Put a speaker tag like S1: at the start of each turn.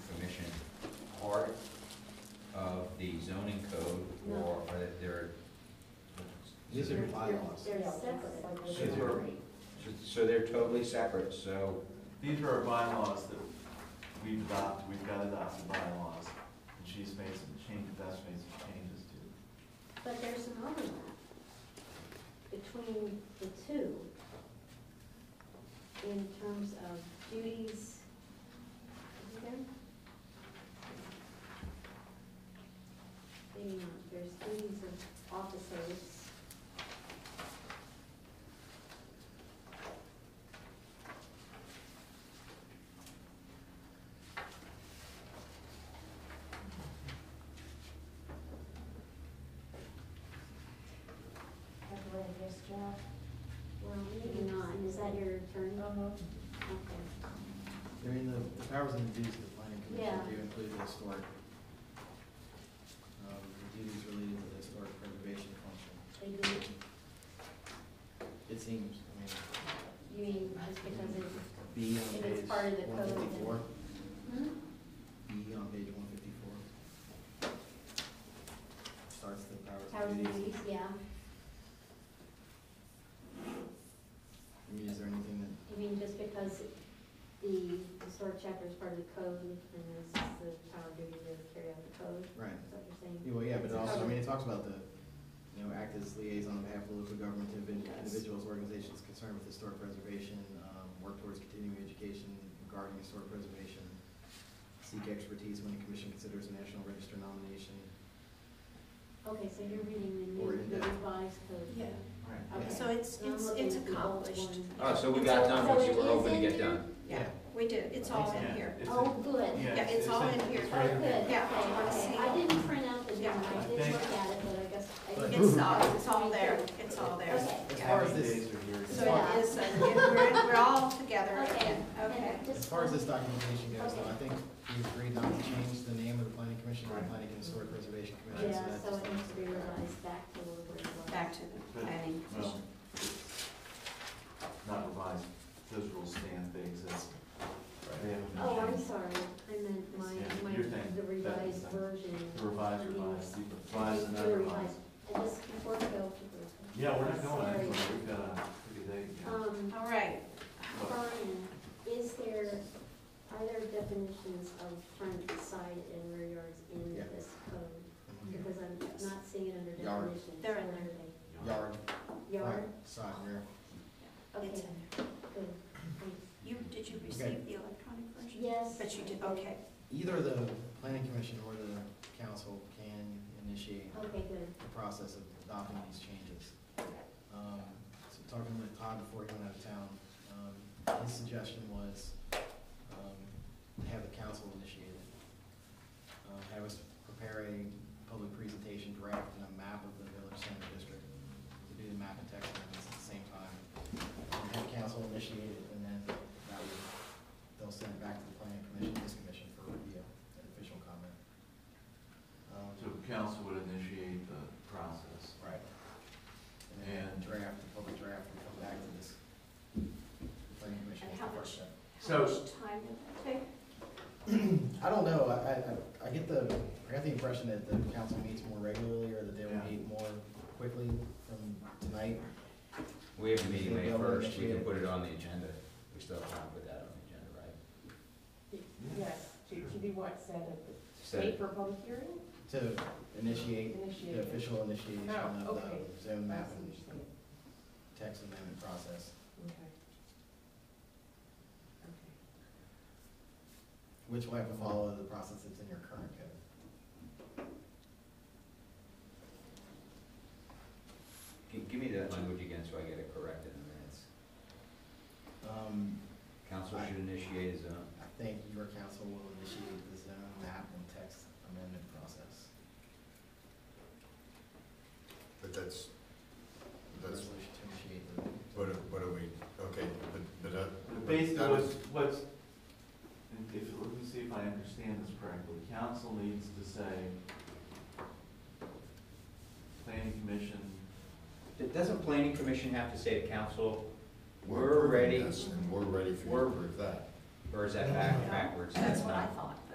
S1: These are bylaws.
S2: They're separate, like
S3: So
S2: they're
S3: they're-
S2: separate.
S3: So they're totally separate, so
S4: These are our bylaws that we've adopted, we've got adopted bylaws, and she's made some changes, that's made some changes to.
S2: But there's some overlap between the two in terms of duties. Is it there? Maybe not. There's duties of officers.
S5: I've read this job.
S2: Well, maybe not. Oh. Is that your turn? Okay.
S1: I mean, the, the powers and duties of the planning commission
S2: Yeah.
S1: do include the historic, um, the duties related to the historic preservation function.
S2: They do.
S1: It seems, I mean.
S2: You mean just because it's,
S1: B
S2: If
S1: on
S2: it's
S1: page
S2: part of the code,
S1: one
S2: then-
S1: fifty-four,
S2: hmm?
S1: B on page one fifty-four. Starts the powers
S2: Powers
S1: and
S2: and
S1: duties.
S2: duties, yeah.
S1: I mean, is there anything that
S2: You mean just because the historic chapter is part of the code and this is the power duty to carry out the code?
S1: Right.
S2: Is that what you're saying?
S1: Yeah, Well, yeah, but
S2: It's
S1: it also, I
S2: covered.
S1: mean, it talks about the, you know, act as liaison on behalf of local government to individ-
S2: Yes.
S1: individuals, organizations concerned with historic preservation, um, work towards continuing education regarding historic preservation, seek expertise when the commission considers a national register nomination.
S2: Okay, so you're reading the
S1: Or
S2: new,
S1: in
S2: the
S1: depth.
S2: revised code?
S5: Yeah.
S1: Right.
S2: Okay.
S5: So it's,
S2: I'm
S5: it's,
S2: looking
S5: it's
S2: at the old
S5: accomplished.
S2: one.
S4: Uh,
S3: Oh, so we got done what you were
S2: So it is
S3: hoping to
S2: in
S3: get
S2: there?
S3: done.
S5: Yeah, we did, it's all in
S4: Yeah,
S5: here.
S4: it's
S2: Oh,
S4: in-
S2: good.
S4: Yeah,
S5: Yeah, it's all in here.
S4: it's
S2: Oh,
S4: right
S2: good,
S4: here.
S2: okay,
S5: Yeah, I
S2: okay.
S5: see.
S2: I didn't print out the new
S5: Yeah.
S2: one, I did
S4: Thank
S2: look
S4: you.
S2: at it, but I guess I
S1: But-
S2: didn't.
S5: It's all, it's all there, it's all there.
S2: Okay.
S1: As
S5: Yeah.
S1: far as
S4: Happy
S1: this,
S4: days are here.
S5: So it is, uh, we're, we're all together
S2: Okay.
S5: again, okay.
S2: And
S1: as
S2: just-
S1: far as this documentation goes, though,
S2: Okay.
S1: I think we agreed not to change the name of the planning commission to the
S4: Right.
S1: planning and historic preservation commission, so
S2: Yeah,
S1: that's
S2: so
S1: just.
S2: it needs to be revised back to where it was.
S5: Back to the planning
S4: Well,
S5: commission.
S4: it's Not revised, those rules stand, they exist. They haven't been
S2: Oh, I'm
S4: changed.
S2: sorry, I meant my,
S4: Yeah,
S2: my,
S4: your thing.
S2: the revised
S4: That's-
S2: version.
S4: The revised,
S2: means-
S4: revised, the revised, and
S2: The
S4: not revised.
S2: revised, and this, before we go.
S4: Yeah, we're not going
S2: Sorry.
S4: anywhere, we've got a pretty day. yeah.
S2: Um,
S5: All right,
S2: Brian, is there, are there definitions of front, side, and rear yards in
S1: Yeah.
S2: this code?
S4: Mm-hmm.
S1: Mhm.
S2: Because I'm
S5: Yes.
S2: not seeing it under
S1: Yard.
S2: definitions.
S5: They're in
S2: Where are
S1: Yard,
S2: they? Yard,
S1: right, side, rear.
S2: okay,
S5: it's in
S2: good,
S5: there.
S2: thanks.
S5: You, did you
S1: Okay.
S5: receive the electronic version?
S2: Yes.
S5: But you did, okay.
S1: Either the planning commission or the council can initiate
S2: Okay, good,
S1: the process of adopting these changes. Um, So talking with Todd before he went out of town, um, his suggestion was um, have the council initiate it. Uh, Have us prepare a public presentation draft and a map of the village center district. To do the map and text amendments at the same time. And Have council initiate it, and then that would, they'll send it back to the planning commission, this commission for review and official comment. Um,
S4: So council would initiate the process.
S1: Right. And then
S4: And-
S1: draft, the public draft, and come back to this planning commission
S5: And
S1: with
S5: how
S1: the
S5: much-
S1: first step.
S4: So-
S5: How much time did that take?
S1: I don't know, I, I, I- I get the, I got the impression that the council meets more regularly, or that they will
S4: Yeah.
S1: meet more quickly from tonight.
S3: We have a meeting May
S1: Yeah, we'll
S3: first, we can
S1: initiate.
S3: put it on the agenda. We still have time to put that on the agenda, right?
S6: Yes, to, to be what, said at the
S3: So,
S6: state for a public hearing?
S1: To initiate,
S6: Initiate.
S1: the official initiation
S6: Oh,
S1: of
S6: okay.
S1: the zone map
S6: That's
S1: and
S6: interesting.
S1: text amendment process,
S6: Okay.
S1: which will have to follow the process that's in your current code.
S3: gi- give me that language again so I get it correct in the minutes.
S1: Um,
S3: Council should initiate his own.
S1: I think your council will initiate the zone map and text amendment process.
S7: But that's, that's,
S1: Resolution to initiate the.
S7: what are, what are we, okay, but, but that.
S4: But Basically,
S7: that
S4: what's,
S7: is-
S4: what's, if, if- let me see if I understand this correctly, council needs to say, planning commission,
S3: Th- Doesn't planning commission have to say to council,
S7: we're
S3: we're
S7: approving
S3: ready,
S7: this And we're ready for you to
S3: We're-
S7: approve that.
S3: or is that back, backwards?
S5: That's what I thought.